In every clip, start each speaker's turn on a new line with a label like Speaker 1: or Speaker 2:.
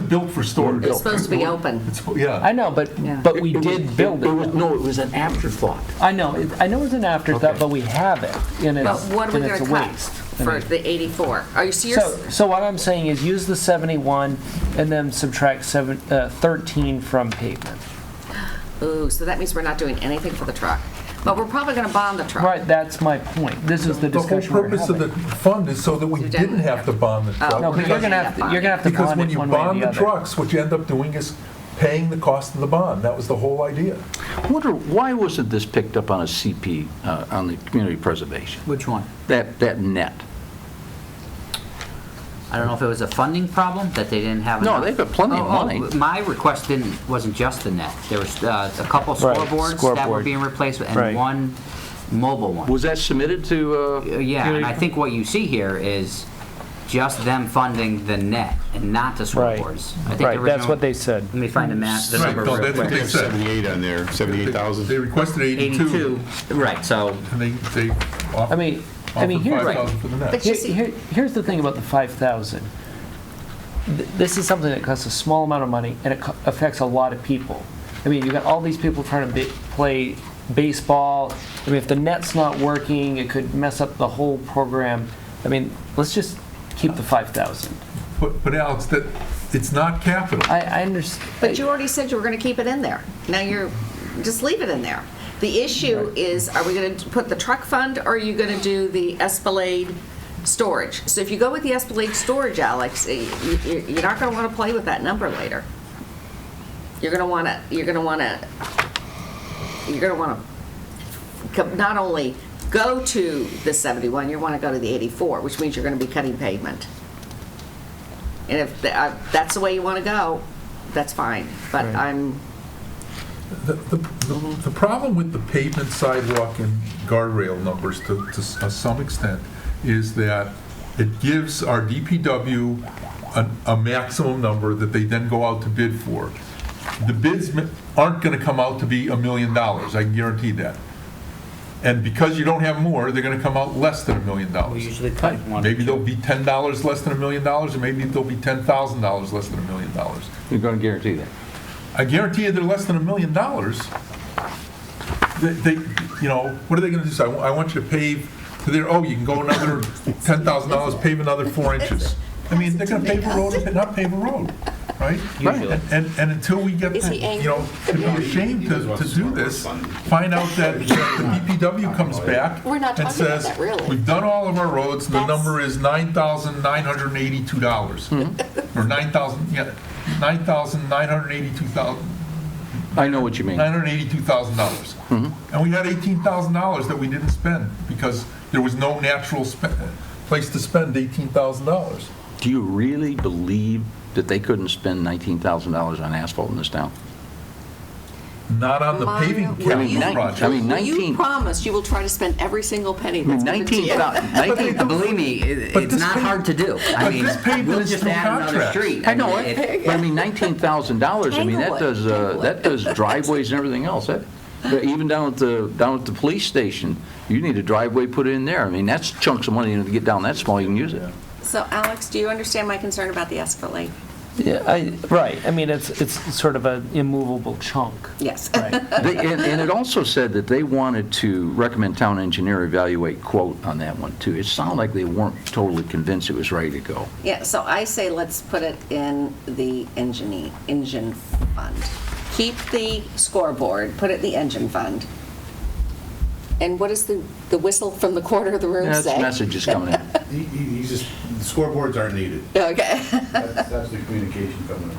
Speaker 1: built for storage.
Speaker 2: It's supposed to be open.
Speaker 1: It's- Yeah.
Speaker 3: I know, but,
Speaker 2: Yeah.
Speaker 3: but we
Speaker 4: It was-
Speaker 3: did build
Speaker 4: was-
Speaker 3: it.
Speaker 4: No, it was an afterthought.
Speaker 3: I know, it- I know it's an afterthought,
Speaker 4: Okay.
Speaker 3: but we have it, and
Speaker 2: But
Speaker 3: it's,
Speaker 2: what are we
Speaker 3: and
Speaker 2: going
Speaker 3: it's
Speaker 2: to
Speaker 3: a
Speaker 2: cut
Speaker 3: waste. I
Speaker 2: for
Speaker 3: mean-
Speaker 2: the 84? Are you
Speaker 3: So,
Speaker 2: serious?
Speaker 3: so what I'm saying is use the 71 and then subtract seven, uh, 13 from pavement.
Speaker 2: Ooh, so that means we're not doing anything for the truck. But we're probably going to bond the truck.
Speaker 3: Right, that's my point. This is the
Speaker 1: The whole
Speaker 3: discussion we're
Speaker 1: purpose of the
Speaker 3: having.
Speaker 1: fund is so that we
Speaker 2: You
Speaker 1: didn't
Speaker 2: didn't
Speaker 1: have to bond the truck.
Speaker 3: No, but Oh, you're
Speaker 1: because-
Speaker 3: gonna have, to- you're gonna have to
Speaker 1: Because
Speaker 3: bond
Speaker 1: when
Speaker 3: it
Speaker 1: you
Speaker 3: one way or
Speaker 1: bond
Speaker 3: the
Speaker 1: the
Speaker 3: other.
Speaker 1: trucks, what you end up doing is paying the cost of the bond. That was the whole idea.
Speaker 4: Wonder, why wasn't this picked up on a CP, uh, on the community preservation?
Speaker 5: Which one?
Speaker 4: That, that net?
Speaker 5: I don't know if it was a funding problem that they didn't have
Speaker 4: No,
Speaker 5: enough.
Speaker 4: they've got plenty of
Speaker 5: Oh, oh,
Speaker 4: money.
Speaker 5: My request didn't, wasn't just the net. There was uh, a couple
Speaker 3: Right,
Speaker 5: scoreboards that were
Speaker 3: scoreboard.
Speaker 5: being replaced
Speaker 3: Right.
Speaker 5: and one mobile one.
Speaker 4: Was that submitted to? uh,
Speaker 5: Uh, Yeah, and I
Speaker 4: community-
Speaker 5: think what you see here is just them funding the net and not the
Speaker 3: Right.
Speaker 5: scoreboards. I think the
Speaker 3: Right, that's
Speaker 5: original-
Speaker 3: what they said.
Speaker 5: Let me find the math, the
Speaker 1: Right,
Speaker 5: number
Speaker 1: no,
Speaker 5: real
Speaker 1: that's what
Speaker 5: quick.
Speaker 1: they-
Speaker 6: There's 78 on there, 78,000.
Speaker 1: They requested 82,
Speaker 5: 82, right, so
Speaker 1: and they, they
Speaker 3: I
Speaker 1: offered
Speaker 3: mean, I mean,
Speaker 1: offered
Speaker 3: here's.
Speaker 1: 5,000 for the net.
Speaker 2: But you
Speaker 3: Here-
Speaker 2: see-
Speaker 3: here- Here's the thing about the 5,000. Th- This is something that costs a small amount of money and it co- affects a lot of people. I mean, you've got all these people trying to ba- play baseball. I mean, if the net's not working, it could mess up the whole program. I mean, let's just keep the 5,000.
Speaker 1: But but Alex, that, it's not capital.
Speaker 3: I, I understand.
Speaker 2: But you already said you were going to keep it in there. Now you're, just leave it in there. The issue is, are we going to put the truck fund, or are you going to do the Esplanade storage? So if you go with the Esplanade storage, Alex, y- y- you're not going to want to play with that number later. You're going to want to, you're going to want to, you're going to want to not only go to the 71, you want to go to the 84, which means you're going to be cutting pavement. And if th- uh, that's the way you want to go, that's fine. But I'm,
Speaker 1: The, the, the- the problem with the pavement sidewalk and guardrail numbers to, to s- uh, some extent is that it gives our DPW an- a maximum number that they then go out to bid for. The bids ma- aren't gonna come out to be a million dollars, I can guarantee that. And because you don't have more, they're gonna come out less than a million
Speaker 5: we
Speaker 1: dollars.
Speaker 5: usually cut one.
Speaker 1: Maybe they'll be ten dollars less than a million dollars, or maybe they'll be ten thousand dollars less than a million dollars.
Speaker 4: You're going to guarantee that?
Speaker 1: I guarantee you they're less than a million dollars. They, they, you know, what are they gonna do? Say, I wa- I want you to pave to there, oh, you can go another ten thousand dollars, pave another four inches. I mean, they're gonna pave a road, and not pave a road, right?
Speaker 5: Usually.
Speaker 1: And- And, and until we get,
Speaker 7: Is he angry?
Speaker 1: you know, to be ashamed to, to do this, find out that the DPW comes back
Speaker 7: We're not
Speaker 1: and
Speaker 7: talking about
Speaker 1: says,
Speaker 7: that, really.
Speaker 1: we've done all of our roads, and the
Speaker 7: That's-
Speaker 1: number is nine thousand nine hundred and eighty-two dollars.
Speaker 4: Hmm.
Speaker 1: Or nine thousand, yeah, nine thousand nine hundred eighty-two thousand,
Speaker 4: I know what you mean.
Speaker 1: nine hundred eighty-two thousand dollars.
Speaker 4: Mm-hmm.
Speaker 1: And we had eighteen thousand dollars that we didn't spend because there was no natural spe- place to spend eighteen thousand dollars.
Speaker 4: Do you really believe that they couldn't spend $19,000 on asphalt in this town?
Speaker 1: Not on the
Speaker 7: Maya,
Speaker 1: paving
Speaker 7: will you-
Speaker 1: capital
Speaker 4: nine-
Speaker 1: project.
Speaker 4: I mean,
Speaker 7: Will You
Speaker 4: 19
Speaker 7: promise you will try to spend every single penny
Speaker 4: I mean,
Speaker 7: that's given to you.
Speaker 4: 19,000, 19
Speaker 5: Believe me, it-
Speaker 1: But
Speaker 5: it's
Speaker 1: this
Speaker 5: not
Speaker 1: pay-
Speaker 5: hard to do. I
Speaker 1: but
Speaker 5: mean,
Speaker 1: this payment
Speaker 5: we'll
Speaker 1: is
Speaker 5: just
Speaker 1: through
Speaker 5: add another
Speaker 1: contracts.
Speaker 5: street.
Speaker 4: I know
Speaker 5: mean,
Speaker 4: it, but I mean, $19,000, I mean, that
Speaker 7: Tanglewood,
Speaker 4: does, uh,
Speaker 7: Tanglewood.
Speaker 4: that does driveways and everything else. That- that Even down at the, down at the police station, you need a driveway put in there. I mean, that's chunks of money to get down that small, you can use it.
Speaker 7: So Alex, do you understand my concern about the Escalade?
Speaker 3: Yeah, I, right, I mean, it's, it's sort of an immovable chunk.
Speaker 7: Yes.
Speaker 3: Right.
Speaker 4: They- And and it also said that they wanted to recommend town engineer evaluate quote on that one, too. It sounded like they weren't totally convinced it was ready to go.
Speaker 7: Yeah, so I say let's put it in the engine, engine fund. Keep the scoreboard, put it in the engine fund. And what does the, the whistle from the corner of the room
Speaker 4: That's
Speaker 7: say?
Speaker 4: message is coming in.
Speaker 8: He, he he just, the scoreboards aren't needed.
Speaker 7: Okay.
Speaker 8: That's, that's the communication coming up.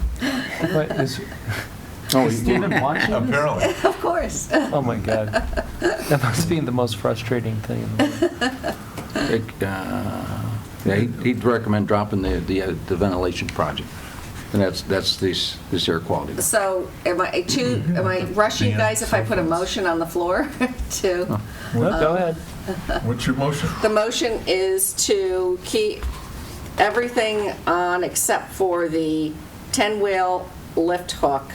Speaker 3: But is
Speaker 4: Oh,
Speaker 3: is Steven watching this?
Speaker 1: Apparently.
Speaker 7: Of course.
Speaker 3: Oh, my God. That must be the most frustrating thing in the world.
Speaker 4: It, uh, Yeah, he'd he'd recommend dropping the the uh, the ventilation project, and that's, that's this, this air quality.
Speaker 7: So am I too, am I rushing you guys if I put a motion on the floor to?
Speaker 3: Go ahead.
Speaker 1: What's your motion?
Speaker 7: The motion is to keep everything on except for the 10-wheel lift hook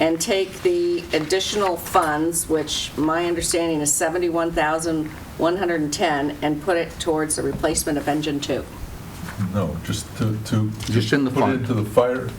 Speaker 7: and take the additional funds, which my understanding is 71,110, and put it towards the replacement of engine two.
Speaker 1: No, just to, to.
Speaker 4: Just in the
Speaker 1: Put
Speaker 4: fund.
Speaker 1: it into the fire,